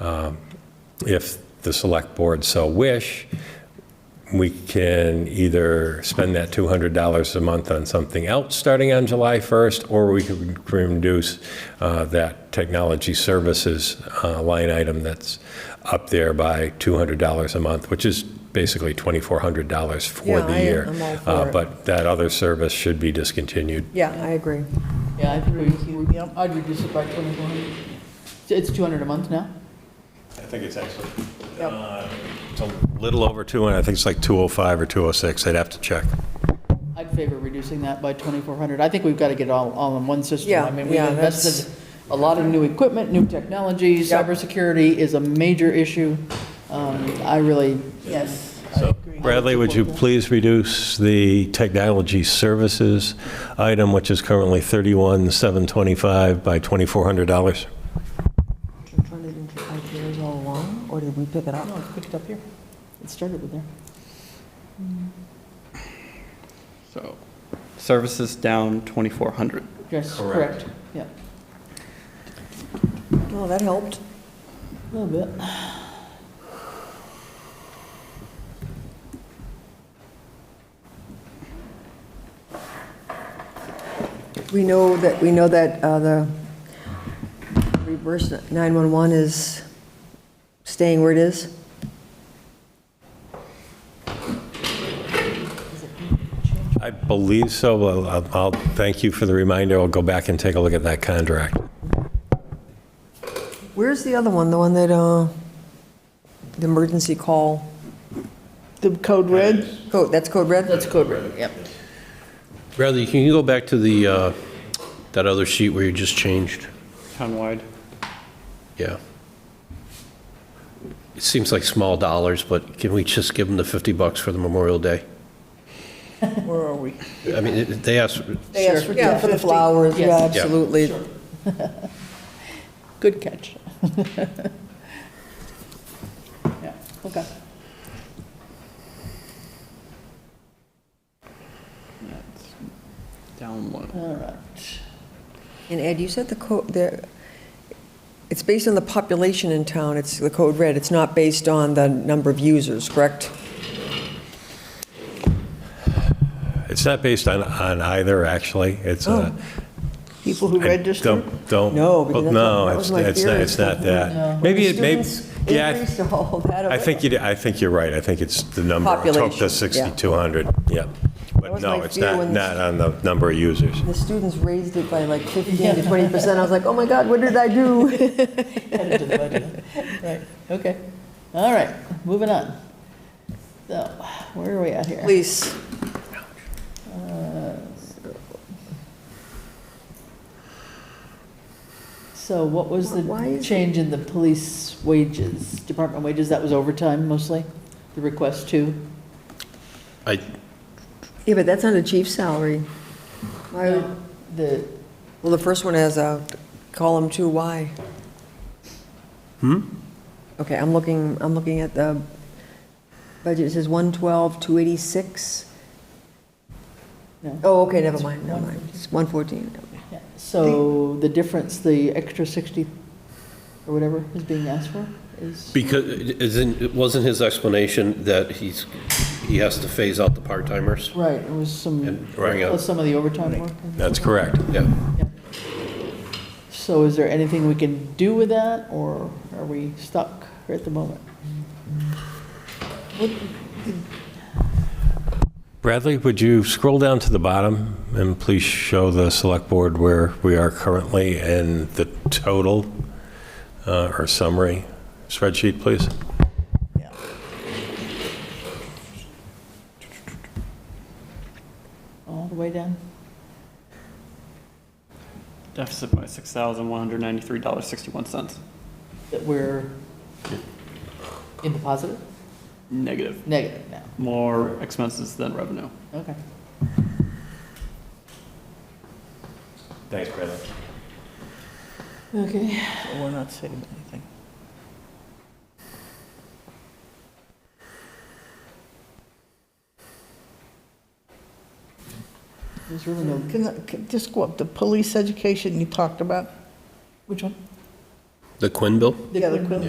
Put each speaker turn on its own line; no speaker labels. Um, If the select board so wish, we can either spend that $200 a month on something else starting on July 1st, or we can reduce uh, that technology services uh, line item that's up there by $200 a month, which is basically $2,400 for
Yeah, I
the
am-
year.
I'm all for
Uh,
it.
But that other service should be discontinued.
Yeah, I agree.
Yeah, I think we, we- I'd reduce it by 2,400. It's- It's 200 a month now?
I think it's actually,
Yep.
it's a little over 200, I think it's like 205 or 206, I'd have to check.
I'd favor reducing that by 2,400. I think we've got to get it all, all in one system.
Yeah,
I mean, we've
yeah,
invested a lot of new equipment, new technology,
Yep.
cybersecurity is a major issue. Um, I really, yes.
So, Bradley, would you please reduce the technology services item, which is currently 31,725 by $2,400?
years all along, or did we pick it up?
No, it's picked up here. It started with there.
So services down 2,400.
Yes,
Correct.
correct. Yeah,
Well, that helped.
a little bit.
We know that, we know that uh, the reverse 911 is staying where it is.
I believe so. Well, I'll- I'll, thank you for the reminder. I'll go back and take a look at that contract.
Where's the other one, the one that, uh, the emergency call?
The code red?
Code, that's code red?
That's code red, yep.
Bradley, can you go back to the, uh, that other sheet where you just changed?
Townwide,
Yeah. It seems like small dollars, but can we just give them the 50 bucks for the Memorial Day?
Where are we?
I mean, it- they asked,
They asked for Yeah, for the
10.50.
flowers, yeah,
Yes. Yeah.
absolutely.
Good catch. Yeah, okay.
that's down one.
All right.
And Ed, you said the code, the, it's based on the population in town, it's the code red, it's not based on the number of users, correct?
It's not based on, on either, actually. It's a.
People who
I
register?
Don't, don't.
Oh, No, because that's
no,
what- that
it's-
was my
it's not-
theory.
It's not that. Maybe it, maybe, yeah. I th-
Increased all that.
I think you, I think you're right. I think it's the number. I took
Population, yeah.
the 6,200, yeah.
That
But
was
no,
my
it's
fear
not,
when this-
not on the number of users.
The students raised it by like 15 to 20%. I was like, oh my God, what did I do?
Added to the budget. Right, okay. All right, moving on. So, where are we at here?
Please.
So what was
Why
the
is
change in the police wages, department wages? That was overtime mostly, the request to?
I,
Yeah, but that's not a chief's salary. Why would-
The,
Well, the first one has a column two, why? Hmm? Okay, I'm looking, I'm looking at the budget. It says 112, 286.
No.
Oh, okay, never mind, never mind. It's 114.
yeah, so the difference, the extra 60 or whatever is being asked for is?
because, isn't, it wasn't his explanation that he's, he has to phase out the part-timers?
Right, it was some,
And bring up-
plus some of the overtime work.
That's correct.
Yeah.
So is there anything we can do with that, or are we stuck at the moment?
Bradley, would you scroll down to the bottom and please show the select board where we are currently and the total uh, or summary spreadsheet, please?
All the way down?
Deficit by $6,193.61.
That we're in the positive?
Negative.
Negative now,
More expenses than revenue.
okay.
Thanks, Bradley.
Okay. We're not saving anything. There's really no,
Can, I- can- just go up, the police education you talked about?
which one?
The Quinn bill?
Yeah, the quilt.